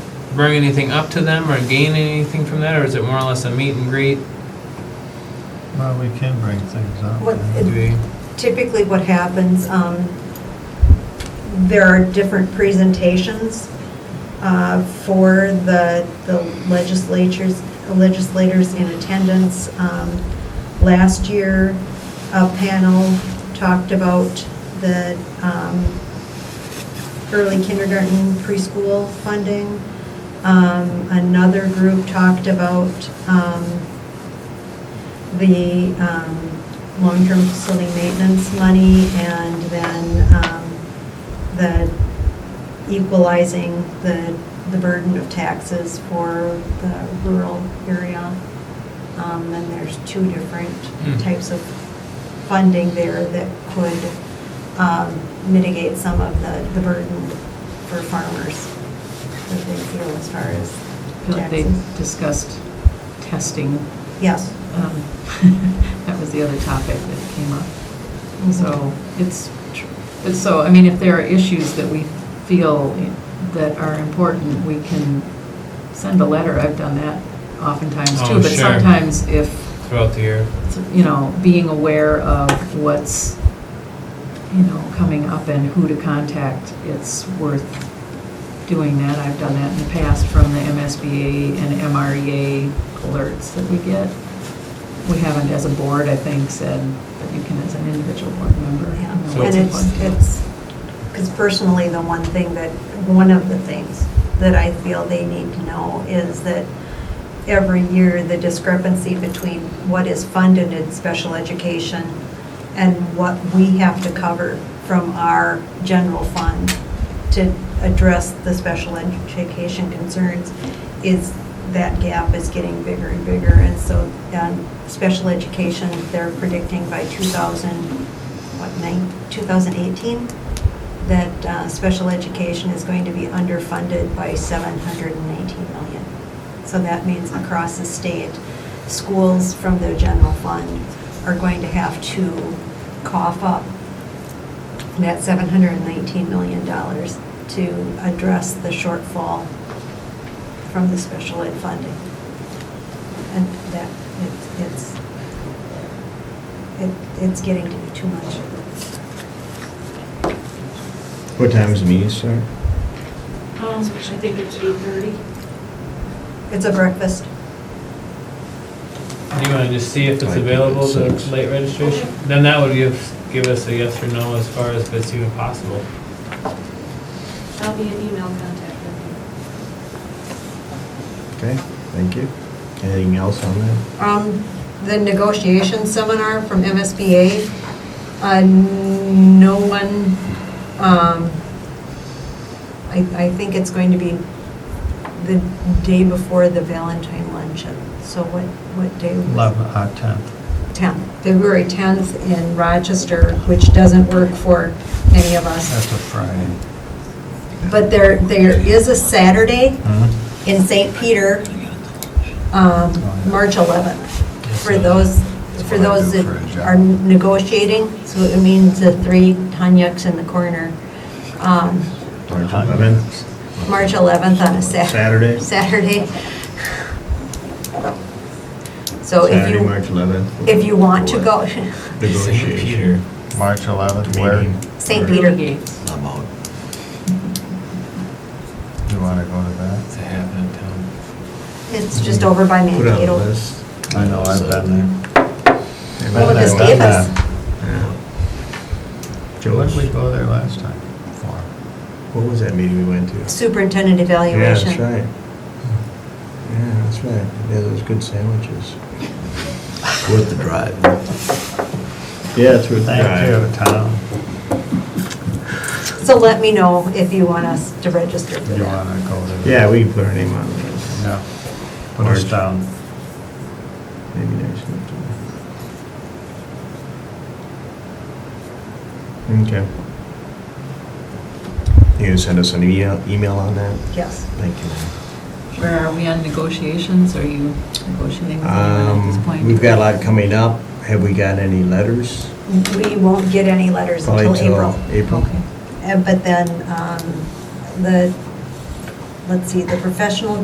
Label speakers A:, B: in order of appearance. A: bring anything up to them or gain anything from that, or is it more or less a meet and greet?
B: Well, we can bring things up.
C: What-
A: Do we-
C: Typically, what happens, um, there are different presentations uh, for the the legislatures, legislators in attendance. Um, Last year, a panel talked about the um, early kindergarten preschool funding. Um, Another group talked about um, the um, long-term facility maintenance money and then um, the equalizing the, the burden of taxes for the rural area. Um, And there's two different
A: Hmm.
C: types of funding there that could um, mitigate some of the, the burden for farmers that they feel as far as
D: feel like they
C: taxes.
D: discussed testing.
C: Yes.
D: um, That was the other topic that came up.
C: Mm-hmm.
D: So it's, tr- it's so, I mean, if there are issues that we feel that are important, we can send a letter. I've done that oftentimes
A: Oh,
D: too. But
A: sure.
D: sometimes if,
A: Throughout the year.
D: you know, being aware of what's, you know, coming up and who to contact, it's worth doing that. I've done that in the past from the MSBA and MREA alerts that we get. We haven't, as a board, I think, said, but you can as an individual board member. you
C: Yeah,
D: know,
A: So-
C: and
D: what's
C: it's,
D: important.
C: it's, because personally, the one thing that, one of the things that I feel they need to know is that every year, the discrepancy between what is funded in special education and what we have to cover from our general fund to address the special education concerns is, that gap is getting bigger and bigger. And so, um, special education, they're predicting by 2000, what, nine, 2018, that uh, special education is going to be underfunded by 718 million. So that means across the state, schools from their general fund are going to have to cough up that $719 million to address the shortfall from the special ed funding. And that, it's- it's, it- it's getting to be too much.
E: What time is the meeting start?
F: Um, I think it's eight thirty.
C: It's a breakfast.
A: Do you want to just see if it's
E: I think
A: available
E: it's
A: to
E: six.
A: late registration?
F: Okay.
A: Then that would give, give us a yes or no as far as if it's even possible.
F: I'll be an email contact with
E: Okay, thank you. Anything else on that?
C: Um, The negotiation seminar from MSBA, uh, no one, um, I I think it's going to be the day before the Valentine luncheon. So what, what day? was it?
B: Eleven, uh, tenth.
C: 10th, February 10th in Rochester, which doesn't work for any of us.
B: That's a Friday.
C: But there, there is a Saturday
E: Hmm?
B: Huh?
C: in St. Peter, um, March 11th. For those, for those that are negotiating, so it means the three Tanyaks in the corner, um,
E: March 11th?
C: March 11th on a Sat-
E: Saturday?
C: Saturday. So if
E: Saturday,
C: you,
E: March 11th?
C: if you want to go,
E: Negotiation.
B: March eleventh, where,
E: Meeting.
C: St.
D: Peter
C: Peter.
D: Gates.
G: I'm out.
B: you wanna go to that?
G: It's a half in town.
C: It's just over by
E: Put on a
C: Mankato.
E: list.
B: I know, I've been there.
C: Well, this
B: Been
C: gave
B: there.
C: us-
E: Yeah.
B: When did we
E: Joe's,
B: go there last time? For?
E: what was that meeting we went to?
C: Superintendent
E: Yeah,
C: evaluation.
E: that's right. Yeah, that's right. Yeah, those good sandwiches.
G: Worth the drive.
E: Yeah, it's worth the drive.
B: Thank you, Tom.
C: So let me know if you want us to register for
B: You
C: that.
B: wanna go to that?
E: Yeah, we can put our name on it.
B: Yeah. Put us
E: March.
B: down.
E: Maybe next week. Okay. You gonna send us an email, email on that?
C: Yes.
E: Thank you.
D: Where are we on negotiations? Are you negotiating with anyone at this point?
E: Um, we've got a lot coming up. Have we got any letters?
C: We won't get any letters Uh,
E: Probably
C: until April.
E: April.
D: Okay.
C: Uh, But then um, the, let's see, the professional